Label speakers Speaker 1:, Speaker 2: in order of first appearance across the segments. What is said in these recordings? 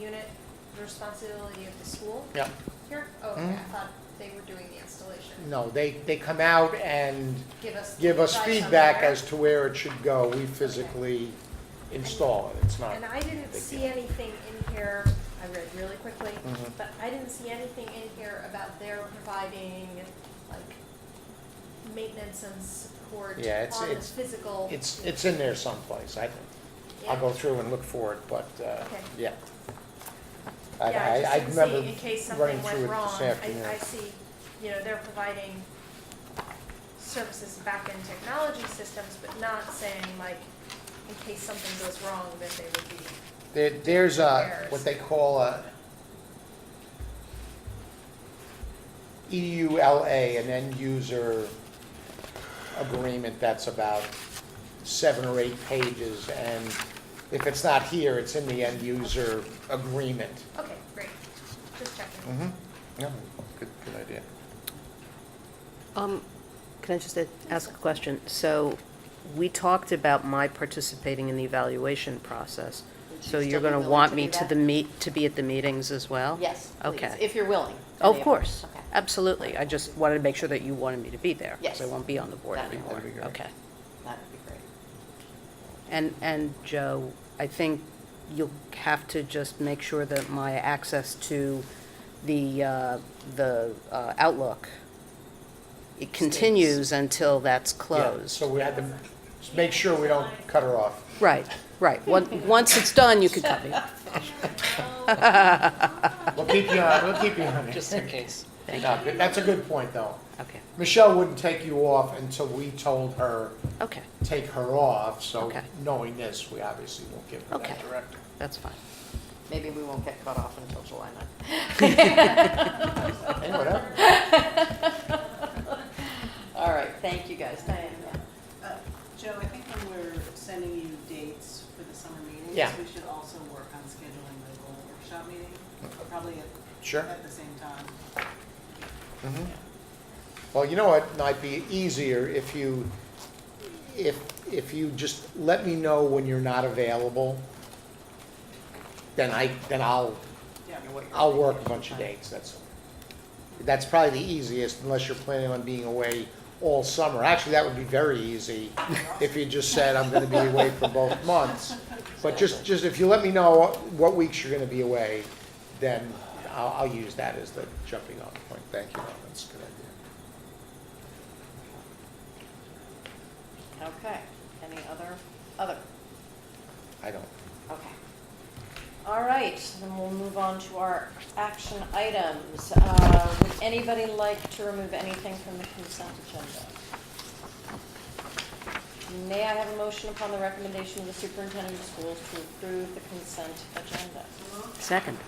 Speaker 1: unit responsibility of the school
Speaker 2: Yeah,
Speaker 1: here? Oh, okay, I
Speaker 2: Mhm.
Speaker 1: thought they were doing the installation.
Speaker 2: no, they, they come out and
Speaker 1: Give us.
Speaker 2: give us
Speaker 1: advice on
Speaker 2: feedback
Speaker 1: where.
Speaker 2: as to where it should go. We physically install it, it's not.
Speaker 1: And I didn't
Speaker 2: Big
Speaker 1: see
Speaker 2: deal.
Speaker 1: anything in here, I read really quickly,
Speaker 2: Mhm.
Speaker 1: but I didn't see anything in here about their providing like maintenance and support on
Speaker 2: Yeah, it's-
Speaker 1: the
Speaker 2: it's-
Speaker 1: physical.
Speaker 2: It's, it's in there someplace, I think. I'll
Speaker 1: Yeah.
Speaker 2: go through and look for it, but, uh,
Speaker 1: Okay.
Speaker 2: yeah. I,
Speaker 1: Yeah,
Speaker 2: I, I
Speaker 1: just didn't see
Speaker 2: remember
Speaker 1: in case
Speaker 2: running
Speaker 1: something
Speaker 2: through
Speaker 1: went
Speaker 2: it
Speaker 1: wrong.
Speaker 2: this afternoon.
Speaker 1: I, I see, you know, they're providing services back-end technology systems, but not saying like, in case something goes wrong, that they would be,
Speaker 2: There, there's a,
Speaker 1: There's-
Speaker 2: what they call a E EULA, an end user agreement that's about seven or eight pages, and if it's not here, it's in the end user agreement.
Speaker 1: okay, great, just checking.
Speaker 2: Mm-hmm, yeah, good, good idea.
Speaker 3: Um, Can I just a- ask a question? So we talked about my participating in the evaluation process.
Speaker 4: Would you
Speaker 3: So
Speaker 4: still
Speaker 3: you're
Speaker 4: be
Speaker 3: going to
Speaker 4: willing
Speaker 3: want
Speaker 4: to
Speaker 3: me
Speaker 4: do
Speaker 3: to
Speaker 4: that?
Speaker 3: the meet, to be at the meetings as well?
Speaker 4: Yes, please,
Speaker 3: Okay. Oh,
Speaker 4: if you're willing. and
Speaker 3: Of
Speaker 4: able.
Speaker 3: course,
Speaker 4: Okay.
Speaker 3: absolutely. I just wanted to make sure that you wanted me to be there. 'cause
Speaker 4: Yes.
Speaker 3: I won't be on the board
Speaker 4: That'd be-
Speaker 3: anymore.
Speaker 2: that'd be great.
Speaker 3: Okay.
Speaker 4: That would be great.
Speaker 3: And, and Joe, I think you'll have to just make sure that my access to the, uh, the uh, Outlook, it continues until that's
Speaker 2: Yeah,
Speaker 3: closed.
Speaker 2: So we had to make sure we don't cut her off.
Speaker 3: Right, right. One- Once it's done, you can cut me.
Speaker 2: Mm-hmm. We'll keep you on, we'll keep you on. it.
Speaker 5: just in case.
Speaker 3: Thank
Speaker 2: No, good- That's a good point, though.
Speaker 3: Okay,
Speaker 2: Michelle wouldn't take you off until we told her,
Speaker 3: okay,
Speaker 2: take her off, so
Speaker 3: Okay.
Speaker 2: knowing this, we obviously won't give her that
Speaker 3: Okay.
Speaker 2: directive.
Speaker 3: that's fine.
Speaker 4: Maybe we won't get cut off until July 9th.
Speaker 2: Okay, whatever.
Speaker 4: All right, thank you guys. Diane, yeah.
Speaker 6: Uh, Joe, I think when we're sending you dates for the summer meetings,
Speaker 2: Yeah.
Speaker 6: we should also work on scheduling the goal workshop meeting, probably at,
Speaker 2: Sure.
Speaker 6: at the same time.
Speaker 2: Mhm. Well, you know what, might be easier if you, if, if you just let me know when you're not available, then I, then I'll,
Speaker 6: Yeah.
Speaker 4: And what you're
Speaker 2: I'll
Speaker 4: thinking
Speaker 2: work
Speaker 4: is
Speaker 2: a bunch of
Speaker 4: fine.
Speaker 2: dates, that's all. That's probably the easiest, unless you're planning on being away all summer. Actually, that would be very easy if you just said, I'm gonna be away for both months. But just, just if you let me know what weeks you're gonna be away, then I'll, I'll use that as the jumping off point. Thank you, Ellen. that's a good idea.
Speaker 4: Okay, any other, other?
Speaker 2: I don't,
Speaker 4: Okay. All right, then we'll move on to our action items. Uh, Would anybody like to remove anything from the consent agenda? May I have a motion upon the recommendation of the superintendent of schools to approve the consent agenda?
Speaker 3: Second.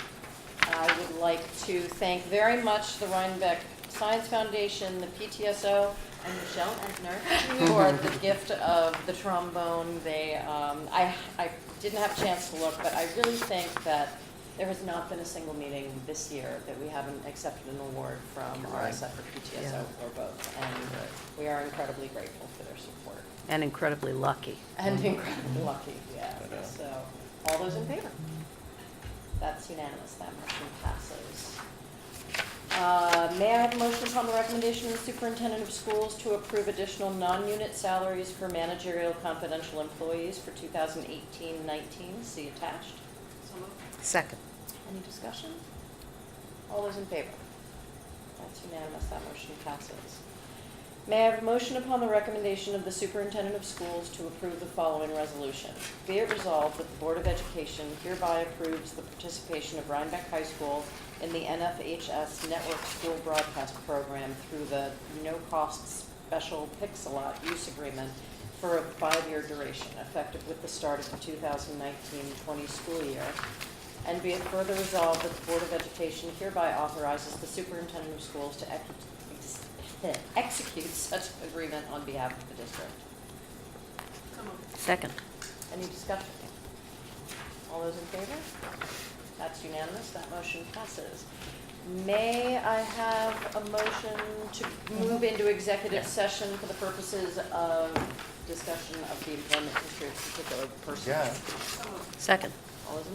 Speaker 4: I would like to thank very much the Rhinebeck Science Foundation, the PTSO, and Michelle Entner for the gift of the trombone. They, um, I, I didn't have a chance to look, but I really think that there has not been a single meeting this year that we haven't accepted an award from RSF or PTSO or both. And we are incredibly grateful for their support
Speaker 3: And incredibly lucky.
Speaker 4: and incredibly lucky, yeah.
Speaker 2: But, uh,
Speaker 4: So, all those in favor? That's unanimous, that motion passes. Uh, May I have a motion upon the recommendation of the superintendent of schools to approve additional non-unit salaries for managerial confidential employees for 2018-19? See attached.
Speaker 6: So moved.
Speaker 3: Second.
Speaker 4: Any discussion? All those in favor? That's unanimous, that motion passes. May I have a motion upon the recommendation of the superintendent of schools to approve the following resolution? Be it resolved that the Board of Education hereby approves the participation of Rhinebeck High School in the NFHS Network School Broadcast Program through the no-cost special Pixelot use agreement for a five-year duration, effective with the start of the 2019-20 school year, and be it further resolved that the Board of Education hereby authorizes the superintendent of schools to ex- ex- execute such agreement on behalf of the district.
Speaker 3: Second.
Speaker 4: Any discussion? All those in favor? That's unanimous, that motion passes. May I have a motion to move into executive session for the purposes of discussion of the employment history of particular persons?
Speaker 2: Yeah.
Speaker 3: Second.
Speaker 4: All those in